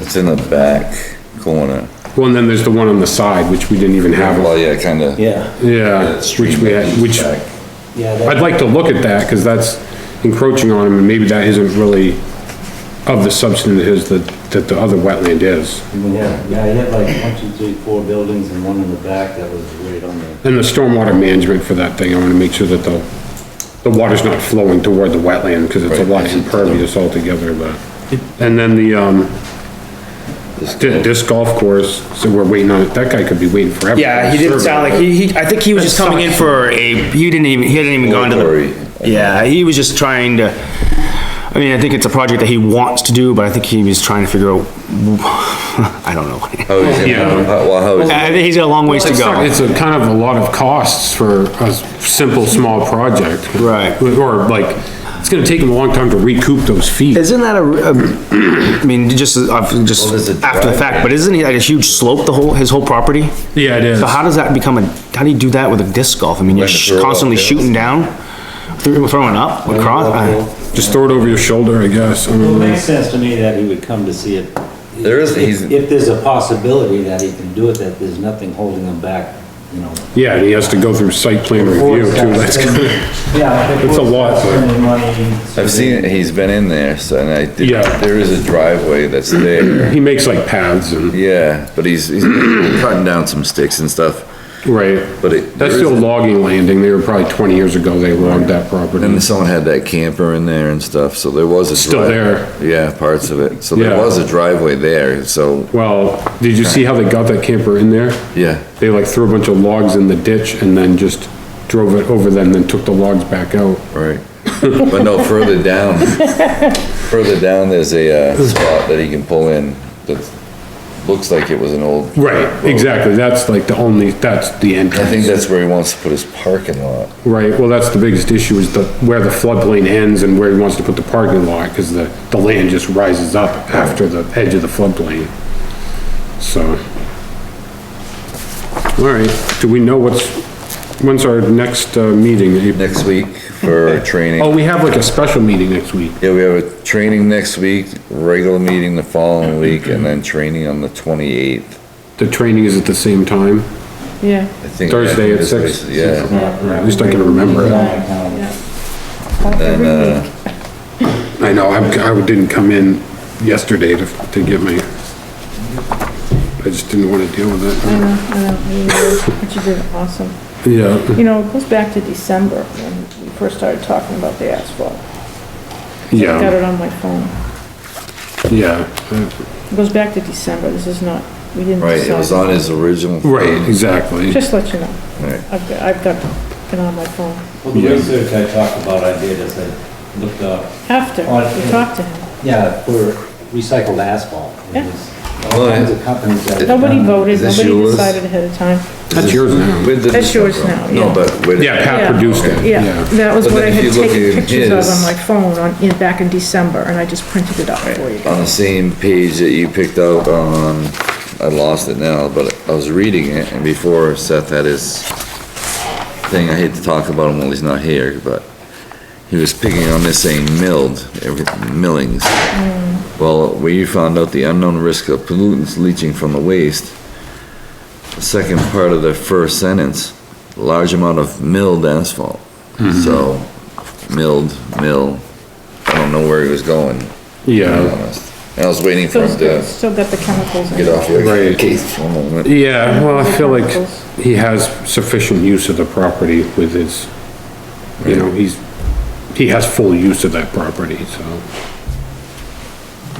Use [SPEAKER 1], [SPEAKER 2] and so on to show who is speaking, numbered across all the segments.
[SPEAKER 1] It's in the back corner.
[SPEAKER 2] Well, and then there's the one on the side, which we didn't even have.
[SPEAKER 1] Well, yeah, kinda.
[SPEAKER 3] Yeah,
[SPEAKER 2] Yeah,
[SPEAKER 1] That
[SPEAKER 2] which
[SPEAKER 1] street
[SPEAKER 2] we, had- which,
[SPEAKER 1] back.
[SPEAKER 3] yeah,
[SPEAKER 2] I'd
[SPEAKER 3] that,
[SPEAKER 2] like to look at that, cause that's encroaching on him, and maybe that isn't really of the substance that is, that, that the other wetland is.
[SPEAKER 3] yeah, yeah, he had like one, two, three, four buildings and one in the back that was right on the,
[SPEAKER 2] And the stormwater management for that thing, I wanna make sure that the, the water's not flowing toward the wetland, cause it's a
[SPEAKER 1] Right,
[SPEAKER 2] lot
[SPEAKER 1] it's a-
[SPEAKER 2] impervious altogether, but. And then the, um, di- disc golf course, so we're waiting on, it. that guy could be waiting forever.
[SPEAKER 4] Yeah, he didn't sound like, he, he, I think he was just coming in for a, he didn't even, he hadn't even gone to
[SPEAKER 1] Oratory.
[SPEAKER 4] the. Yeah, he was just trying to, I mean, I think it's a project that he wants to do, but I think he was trying to figure out, I don't know.
[SPEAKER 1] How is it,
[SPEAKER 2] Oh,
[SPEAKER 1] how-
[SPEAKER 2] Yeah.
[SPEAKER 1] Oh, well, oh, how is it?
[SPEAKER 4] I think he's got a long ways to
[SPEAKER 2] It's not-
[SPEAKER 4] go.
[SPEAKER 2] It's a kind of a lot of costs for a s- simple, small project.
[SPEAKER 4] Right.
[SPEAKER 2] Or like, it's gonna take them a long time to recoup those fees.
[SPEAKER 4] Isn't that a, a- I mean, just, I've just,
[SPEAKER 1] Well, there's a
[SPEAKER 4] after the fact,
[SPEAKER 1] driveway.
[SPEAKER 4] but isn't he like a huge slope, the whole, his whole property?
[SPEAKER 2] Yeah, it is.
[SPEAKER 4] So how does that become a, how do you do that with a disc golf? I mean, you're
[SPEAKER 1] Like a throw up,
[SPEAKER 4] constantly
[SPEAKER 1] yeah.
[SPEAKER 4] shooting down, through- throwing up, across? uh, I-
[SPEAKER 2] Just throw it over your shoulder, I guess. I don't
[SPEAKER 3] It
[SPEAKER 2] know.
[SPEAKER 3] makes sense to me that he would come to see it.
[SPEAKER 1] There is- he's-
[SPEAKER 3] If if there's a possibility that he can do it, that there's nothing holding him back, you know.
[SPEAKER 2] Yeah, and he has to go through site plan review too, that's kind of,
[SPEAKER 3] Yeah.
[SPEAKER 2] It's a lot, but-
[SPEAKER 1] I've seen it, he's been in there, so, and I did,
[SPEAKER 2] Yeah.
[SPEAKER 1] there is a driveway that's there.
[SPEAKER 2] he makes like paths and,
[SPEAKER 1] Yeah, but he's, he's cutting down some sticks and stuff,
[SPEAKER 2] right.
[SPEAKER 1] but it.
[SPEAKER 2] That's
[SPEAKER 1] there is
[SPEAKER 2] still
[SPEAKER 1] a-
[SPEAKER 2] logging landing, they were probably twenty years ago they logged that property.
[SPEAKER 1] And someone had that camper in there and stuff, so there was a.
[SPEAKER 2] Still
[SPEAKER 1] dri-
[SPEAKER 2] there.
[SPEAKER 1] Yeah, parts of it. So there
[SPEAKER 2] Yeah.
[SPEAKER 1] was a driveway there, so,
[SPEAKER 2] Well, did you see how they got that camper in there?
[SPEAKER 1] yeah.
[SPEAKER 2] They like threw a bunch of logs in the ditch and then just drove it over them, then took the logs back out.
[SPEAKER 1] Right. But no, further down, further down, there's a, uh, spot that he can pull in that looks like it was an old.
[SPEAKER 2] Right, exactly, that's like the only, that's the
[SPEAKER 1] Oh. I think
[SPEAKER 2] entrance.
[SPEAKER 1] that's where he wants to put his parking lot.
[SPEAKER 2] Right, well, that's the biggest issue is the, where the floodplain ends and where he wants to put the parking lot, because the, the land just rises up after the edge of the floodplain. So. All right, do we know what's, when's our next, uh, meeting?
[SPEAKER 1] Next week for our training.
[SPEAKER 2] Oh, we have like a special meeting next week.
[SPEAKER 1] Yeah, we have a training next week, regular meeting the following week, and then training on the twenty-eighth.
[SPEAKER 2] The training is at the same time.
[SPEAKER 5] Yeah,
[SPEAKER 1] I think.
[SPEAKER 2] Thursday at six.
[SPEAKER 1] Yeah,
[SPEAKER 2] Or at least I can remember it.
[SPEAKER 1] and, uh,
[SPEAKER 2] I know, I'm, I didn't come in yesterday to, to get my, I just didn't wanna deal with
[SPEAKER 5] I
[SPEAKER 2] it.
[SPEAKER 5] know, I know, you did- but you did awesome.
[SPEAKER 2] Yeah,
[SPEAKER 5] You know, it goes back to December when we first started talking about the asphalt. I got
[SPEAKER 2] yeah,
[SPEAKER 5] it on my phone.
[SPEAKER 2] yeah,
[SPEAKER 5] It goes back to December, this is not, we didn't
[SPEAKER 1] right, it was
[SPEAKER 5] decide.
[SPEAKER 1] on his original.
[SPEAKER 2] right, exactly.
[SPEAKER 5] Just let you know,
[SPEAKER 1] Right.
[SPEAKER 5] I've got, I've got it on my phone.
[SPEAKER 3] Well, the
[SPEAKER 2] Yeah.
[SPEAKER 3] research I talked about, I did, is I looked up,
[SPEAKER 5] After,
[SPEAKER 3] Oh, I-
[SPEAKER 5] you talked to him.
[SPEAKER 3] yeah, for recycled asphalt.
[SPEAKER 5] Yeah.
[SPEAKER 3] There's All kinds of companies that. have
[SPEAKER 5] Nobody
[SPEAKER 3] done-
[SPEAKER 5] voted,
[SPEAKER 1] Is this
[SPEAKER 5] nobody
[SPEAKER 1] yours?
[SPEAKER 5] decided ahead of time.
[SPEAKER 2] That's yours now.
[SPEAKER 1] Where did
[SPEAKER 5] That's
[SPEAKER 1] this come
[SPEAKER 5] yours
[SPEAKER 1] from?
[SPEAKER 5] now, yeah.
[SPEAKER 1] No, but where did?
[SPEAKER 2] Yeah, Pat
[SPEAKER 5] Yeah.
[SPEAKER 2] produced it,
[SPEAKER 5] Yeah,
[SPEAKER 2] yeah.
[SPEAKER 5] that was
[SPEAKER 1] But
[SPEAKER 5] what I
[SPEAKER 1] then if
[SPEAKER 5] had
[SPEAKER 1] you look
[SPEAKER 5] taken
[SPEAKER 1] at
[SPEAKER 5] pictures of
[SPEAKER 1] his-
[SPEAKER 5] on my phone on, in, back in December, and I just printed it out for you.
[SPEAKER 1] on the same page that you picked out on, I lost it now, but I was reading it, and before Seth had his thing, I hate to talk about him while he's not here, but he was picking on this saying milled, every- millings. Well, where you found out the unknown risk of pollutants leaching from the waste, the second part of the first sentence, large amount of milled asphalt.
[SPEAKER 2] Mm-hmm.
[SPEAKER 1] So, milled, mill, I don't know where he was going be
[SPEAKER 2] Yeah,
[SPEAKER 1] honest. And I was waiting for
[SPEAKER 5] So
[SPEAKER 1] him
[SPEAKER 5] it's
[SPEAKER 1] to
[SPEAKER 5] still got the chemicals in it.
[SPEAKER 1] get off your
[SPEAKER 2] Right.
[SPEAKER 1] case for a moment.
[SPEAKER 2] yeah, well, I feel like he has sufficient use of the property with his, you know, he's, he has full use of that property, so.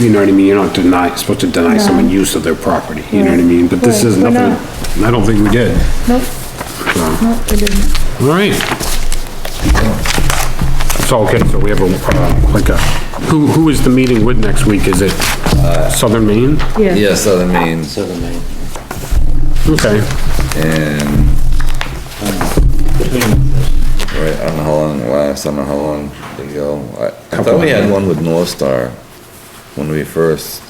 [SPEAKER 2] You know what I mean? You're not deny supposed to deny someone use of their property, you know what I mean? But this
[SPEAKER 5] Right,
[SPEAKER 2] is
[SPEAKER 5] we're
[SPEAKER 2] nothing, I don't think we did.
[SPEAKER 5] Nope. Nope, I didn't.
[SPEAKER 2] All right. So, okay, so we have a, uh, like a, who, who is the meeting with next week? Is it uh, Southern Maine?
[SPEAKER 5] Yeah,
[SPEAKER 1] Yeah, Southern Maine
[SPEAKER 3] Southern Maine.
[SPEAKER 2] Okay,
[SPEAKER 1] and,
[SPEAKER 3] Between
[SPEAKER 1] right, I don't know how long it lasts, I don't know how long they go. I, I thought we had one with North Star when we first,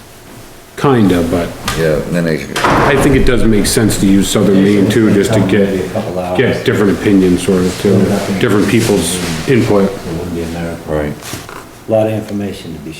[SPEAKER 2] kinda, but
[SPEAKER 1] yeah, and then I,
[SPEAKER 2] I think it does make sense to use Southern Maine too, just to
[SPEAKER 3] Maybe a
[SPEAKER 2] get,
[SPEAKER 3] couple hours.
[SPEAKER 2] get different opinions sort of too, different people's input.
[SPEAKER 3] It wouldn't be a miracle.
[SPEAKER 1] right.
[SPEAKER 3] Lot of information to be